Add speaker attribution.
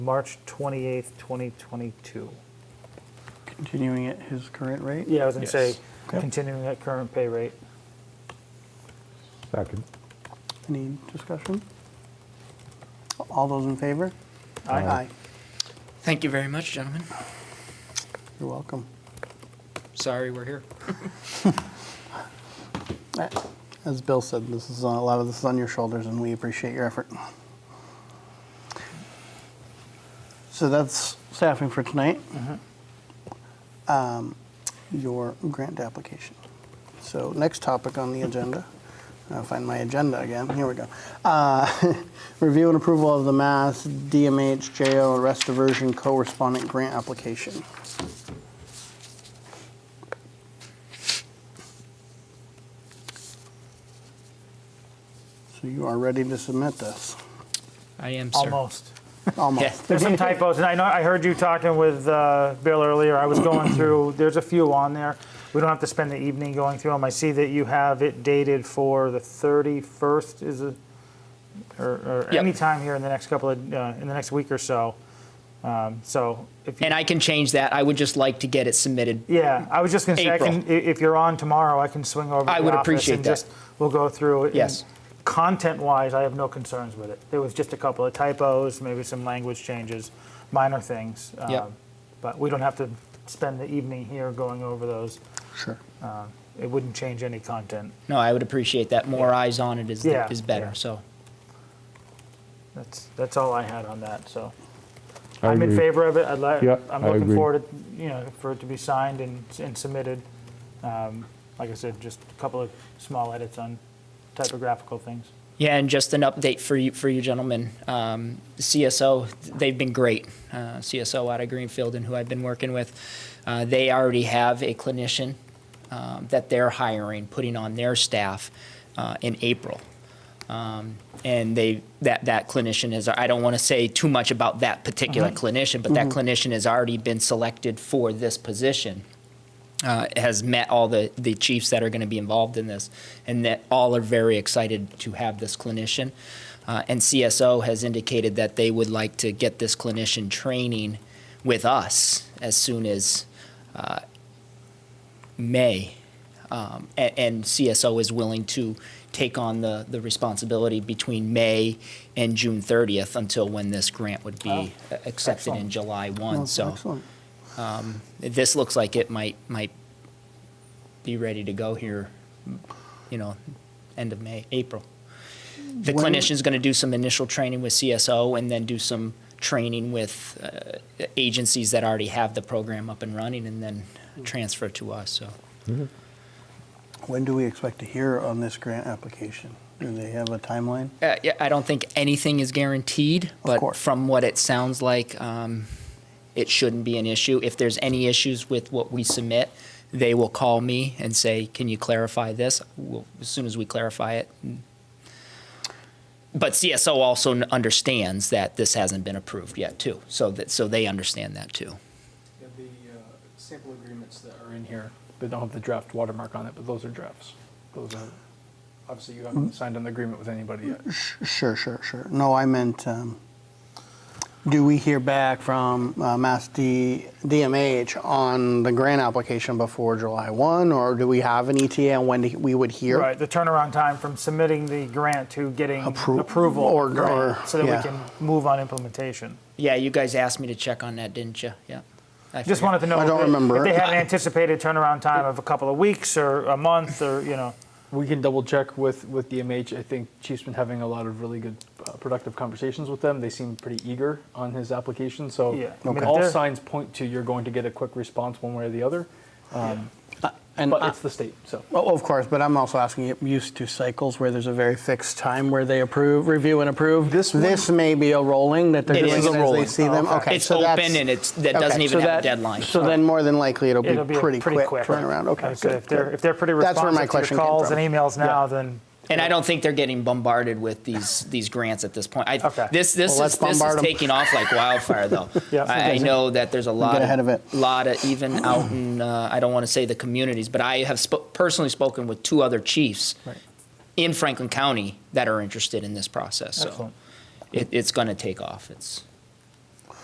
Speaker 1: March 28th, 2022.
Speaker 2: Continuing at his current rate?
Speaker 1: Yeah, I was going to say,
Speaker 3: Yes.
Speaker 2: Yep.
Speaker 1: continuing at current pay rate.
Speaker 4: Second.
Speaker 2: Any discussion? All those in favor?
Speaker 1: Aye.
Speaker 5: Thank you very much, gentlemen.
Speaker 2: You're welcome.
Speaker 5: Sorry we're here.
Speaker 2: Uh, As Bill said, this is, uh, a lot of this is on your shoulders, and we appreciate your effort. So that's staffing for tonight.
Speaker 1: Mm-hmm.
Speaker 2: Um, Your grant application. So next topic on the agenda, I'll find my agenda again, here we go. Uh, Review and approval of the Mass DMH JO Arrest Diversion Co-Respondent Grant Application. So you are ready to submit this,
Speaker 5: I am, sir.
Speaker 1: Almost.
Speaker 2: almost.
Speaker 1: There's some typos, and I know, I heard you talking with uh, Bill earlier. I was going through, there's a few on there. We don't have to spend the evening going through them. I see that you have it dated for the 31st, is it? Or, or
Speaker 5: Yep.
Speaker 1: anytime here in the next couple of, uh, in the next week or so. Um, So if you.
Speaker 5: And I can change that. I would just like to get it submitted.
Speaker 1: Yeah, I was just going to say, I can, i-
Speaker 5: April.
Speaker 1: if you're on tomorrow, I can swing over to
Speaker 5: I
Speaker 1: the
Speaker 5: would
Speaker 1: office
Speaker 5: appreciate
Speaker 1: and
Speaker 5: that.
Speaker 1: just, we'll go through it.
Speaker 5: Yes.
Speaker 1: And Content-wise, I have no concerns with it. There was just a couple of typos, maybe some language changes, minor things.
Speaker 5: Yep.
Speaker 1: um, But we don't have to spend the evening here going over those.
Speaker 2: Sure.
Speaker 1: It wouldn't change any content.
Speaker 5: No, I would appreciate that. More eyes on it is,
Speaker 1: Yeah,
Speaker 5: is better.
Speaker 1: yeah.
Speaker 5: So
Speaker 1: That's, that's all I had on that, so.
Speaker 4: I
Speaker 1: I'm in
Speaker 4: agree.
Speaker 1: favor of it. I'd like,
Speaker 4: Yeah,
Speaker 1: I'm
Speaker 4: I
Speaker 1: looking
Speaker 4: agree.
Speaker 1: forward to, you know, for it to be signed and, and submitted. Um, Like I said, just a couple of small edits on typographical things.
Speaker 5: yeah, and just an update for you for you gentlemen. Um, CSO, they've been great. Uh, CSO out of Greenfield and who I've been working with, uh, they already have a clinician um, that they're hiring, putting on their staff uh, in April. Um, and they that that clinician is I don't want to say too much about that particular clinician, but that clinician has already been selected for this position. uh, has met all the, the chiefs that are going to be involved in this, and that all are very excited to have this clinician. Uh, and CSO has indicated that they would like to get this clinician training with us as soon as uh, May. Um, and, and CSO is willing to take on the, the responsibility between May and June 30th until when this grant would be uh, accepted in
Speaker 1: excellent.
Speaker 5: July 1.
Speaker 2: Oh,
Speaker 5: so
Speaker 2: Excellent.
Speaker 5: this looks like it might might be ready to go here, you know, end of May, April. The
Speaker 2: When-
Speaker 5: clinician's going to do some initial training with CSO and then do some training with uh, agencies that already have the program up and running and then transfer to us. So
Speaker 2: When do we expect to hear on this grant application? Do they have a timeline?
Speaker 5: uh, yeah, I don't think anything is guaranteed, but
Speaker 2: course.
Speaker 5: from what it sounds like, um, it shouldn't be an issue. If there's any issues with what we submit, they will call me and say, "Can you clarify this?" We'll, as soon as we clarify it. But CSO also n- understands that this hasn't been approved yet, too. So that so they understand that too.
Speaker 3: Yeah, The uh, sample agreements that are in here, they don't have the draft watermark on it, but those are drafts. Those are, obviously, you haven't signed an agreement with anybody yet.
Speaker 2: Sure, sure, sure. No, I meant, um, do we hear back from uh, Mass D- DMH on the grant application before July 1? Or do we have an ETA on when we would hear?
Speaker 1: Right, the turnaround time from submitting the grant to getting
Speaker 2: Appro-
Speaker 1: approval.
Speaker 2: or-
Speaker 1: Right,
Speaker 2: or-
Speaker 1: So that we
Speaker 2: yeah.
Speaker 1: can move on implementation.
Speaker 5: Yeah, you guys asked me to check on that, didn't you? Yeah. I
Speaker 1: Just
Speaker 5: forgot.
Speaker 1: wanted to know.
Speaker 2: I don't
Speaker 1: if-
Speaker 2: remember.
Speaker 1: If they had an anticipated turnaround time of a couple of weeks or a month or, you know,
Speaker 3: We can double check with, with DMH. I think Chief's been having a lot of really good, uh, productive conversations with them. They seem pretty eager on his application, so
Speaker 1: Yeah. I mean, if
Speaker 3: all
Speaker 1: they're-
Speaker 3: signs point to you're going to get a quick response one way or the other. Um,
Speaker 2: And
Speaker 3: But
Speaker 2: I-
Speaker 3: it's the state, so.
Speaker 2: Oh, Of course, but I'm also asking, you used to cycles where there's a very fixed time where they approve, review and approve?
Speaker 3: This one-
Speaker 2: This may be a rolling, that they're
Speaker 5: It
Speaker 2: doing
Speaker 5: is
Speaker 2: it
Speaker 5: a
Speaker 2: as they
Speaker 3: rolling.
Speaker 2: see them? Okay.
Speaker 5: It's
Speaker 2: so that's-
Speaker 5: open and it's that
Speaker 2: okay,
Speaker 5: doesn't
Speaker 2: so
Speaker 5: even have a
Speaker 2: that-
Speaker 5: deadline.
Speaker 2: So then more than likely, it'll be
Speaker 1: it'll be a
Speaker 2: pretty quick turnaround, okay.
Speaker 1: Like I said,
Speaker 2: good,
Speaker 1: If they're,
Speaker 2: good.
Speaker 1: if they're pretty
Speaker 2: That's where
Speaker 1: responsive
Speaker 2: my
Speaker 1: to
Speaker 2: question
Speaker 1: your
Speaker 2: came
Speaker 1: calls
Speaker 2: from.
Speaker 1: and emails now, then.
Speaker 5: And I don't think they're getting bombarded with these these grants at this point. I,
Speaker 1: Okay.
Speaker 5: This this
Speaker 2: Well,
Speaker 5: is
Speaker 2: let's
Speaker 5: this is
Speaker 2: bombard 'em.
Speaker 5: taking off like wildfire, though.
Speaker 1: Yeah.
Speaker 5: I, I know that there's a lot
Speaker 2: ahead of it.
Speaker 5: lot of even out in uh, I don't want to say the communities, but I have sp- personally spoken with two other chiefs in Franklin County that are interested in this process. So
Speaker 1: Excellent.
Speaker 5: it, it's going to take off. It's